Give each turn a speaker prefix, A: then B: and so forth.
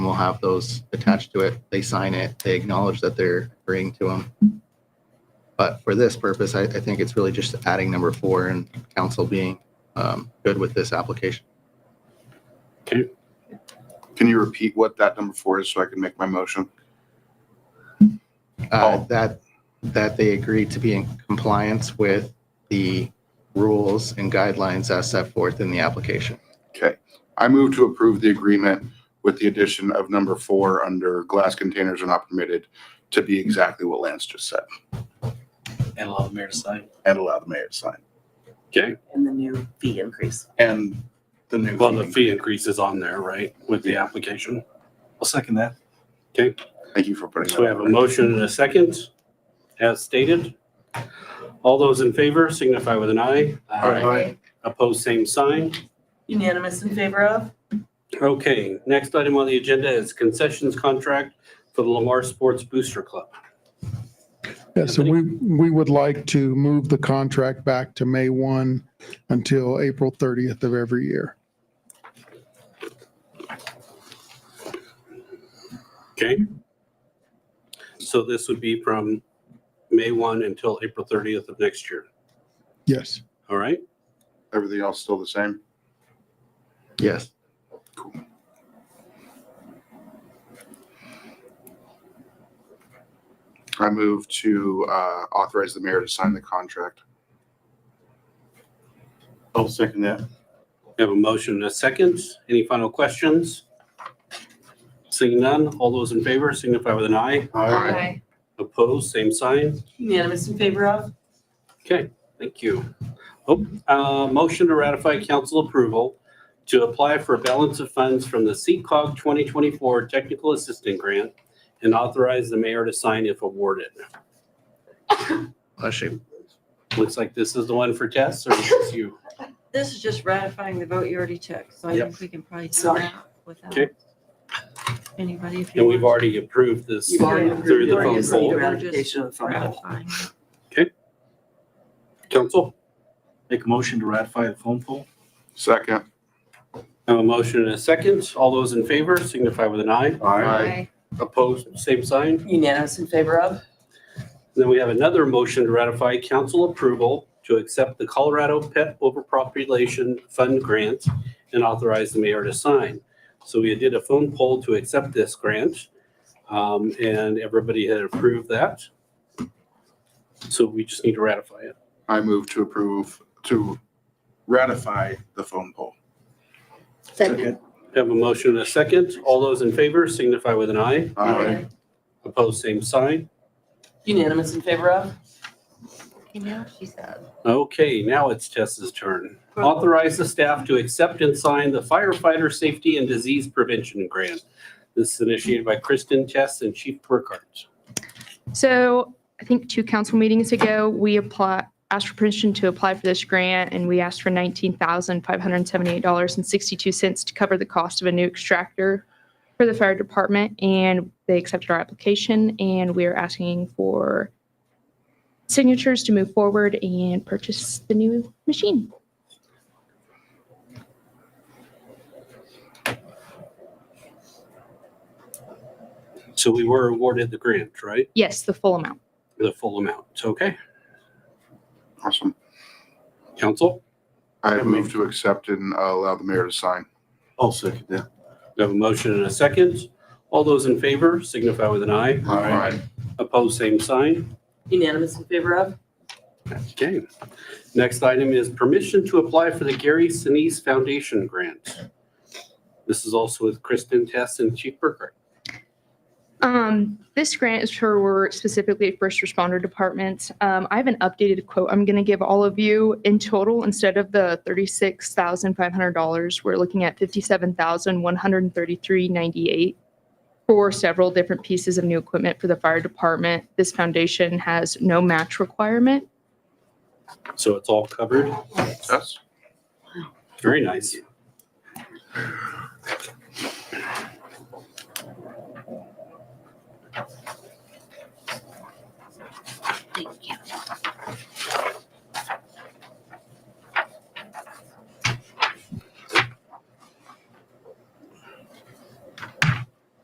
A: and we'll have those attached to it. They sign it, they acknowledge that they're agreeing to them. But for this purpose, I, I think it's really just adding number four and council being um, good with this application.
B: Can you repeat what that number four is so I can make my motion?
A: Uh,
B: Oh.
A: That, that they agree to be in compliance with the rules and guidelines as set forth in the application.
B: Okay. I move to approve the agreement with the addition of number four under glass containers are not permitted to be exactly what Lance just said
C: and allow the mayor to sign.
B: and allow the mayor to sign.
D: Okay,
E: and the new fee increase.
B: And the new.
D: well, the fee increase is on there, right, with the application?
C: I'll second that.
D: Okay,
B: Thank you for putting
D: so we
B: that.
D: have a
B: on.
D: motion and a second, as stated. All those in favor signify with an eye.
B: Aye.
D: Opposed, same sign.
E: Unanimous in favor of?
D: Okay, next item on the agenda is concessions contract for the Lamar Sports Booster Club.
F: Yeah, so we, we would like to move the contract back to May 1 until April 30th of every year.
D: Okay? So this would be from May 1 until April 30th of next year,
F: Yes.
D: all right?
B: Everything else still the same?
A: Yes.
B: I move to uh, authorize the mayor to sign the contract.
C: I'll second that.
D: We have a motion and a second. Any final questions? Seeing none, all those in favor signify with an eye.
B: Aye.
D: Opposed, same sign.
E: Unanimous in favor of?
D: Okay, thank you. Oh, uh, motion to ratify council approval to apply for a balance of funds from the CCOG 2024 Technical Assistant Grant and authorize the mayor to sign if awarded.
A: Bless you.
D: Looks like this is the one for Tess or is this you?
G: This is just ratifying the vote you already took, so I
D: Yep.
G: think we can probably do
E: Sorry.
G: that without
D: Okay.
G: anybody if you
D: And we've
G: want.
D: already approved this
E: You've already approved-
D: through
E: you
D: the
E: already
D: phone
E: approved the
D: poll.
E: ratification of the phone poll.
G: Ratifying.
D: Council?
C: Make a motion to ratify the phone poll.
B: Second.
D: I have A motion and a second. All those in favor signify with an eye.
G: Aye.
D: Opposed, same sign.
E: Unanimous in favor of?
D: Then we have another motion to ratify council approval to accept the Colorado Pet Overpopulation Fund Grant and authorize the mayor to sign. So we did a phone poll to accept this grant, um, and everybody had approved that. So we just need to ratify it.
B: I move to approve, to ratify the phone poll.
C: Second.
D: Have a motion and a second. All those in favor signify with an eye.
B: Aye.
D: Opposed, same sign.
E: Unanimous in favor of?
G: You know, she said.
D: Okay, now it's Tessa's turn. Authorize the staff to accept and sign the firefighter safety and disease prevention grant. This is initiated by Kristen Tess and Chief Burkhardt.
H: So I think two council meetings ago, we apply, asked for permission to apply for this grant and we asked for $19,578.62 to cover the cost of a new extractor for the fire department and they accepted our application and we are asking for signatures to move forward and purchase the new machine.
D: So we were awarded the grant, right?
H: Yes, the full amount.
D: The full amount. Okay,
B: Awesome.
D: council,
B: I move to accept and uh, allow the mayor to sign.
C: I'll second that.
D: we have a motion and a second. All those in favor signify with an eye.
C: Aye.
D: Opposed, same sign.
E: Unanimous in favor of?
D: Okay. Next item is permission to apply for the Gary Sinise Foundation Grant. This is also with Kristen Tess and Chief Burkhardt.
H: Um, this grant is for specifically first responder departments. Um, I have an updated quote I'm going to give all of you. In total, instead of the thirty-six thousand five hundred dollars, we're looking at fifty-seven thousand one hundred thirty-three ninety-eight for several different pieces of new equipment for the fire department. This foundation has no match requirement.
D: So it's all covered.
B: Yes.
D: Very nice.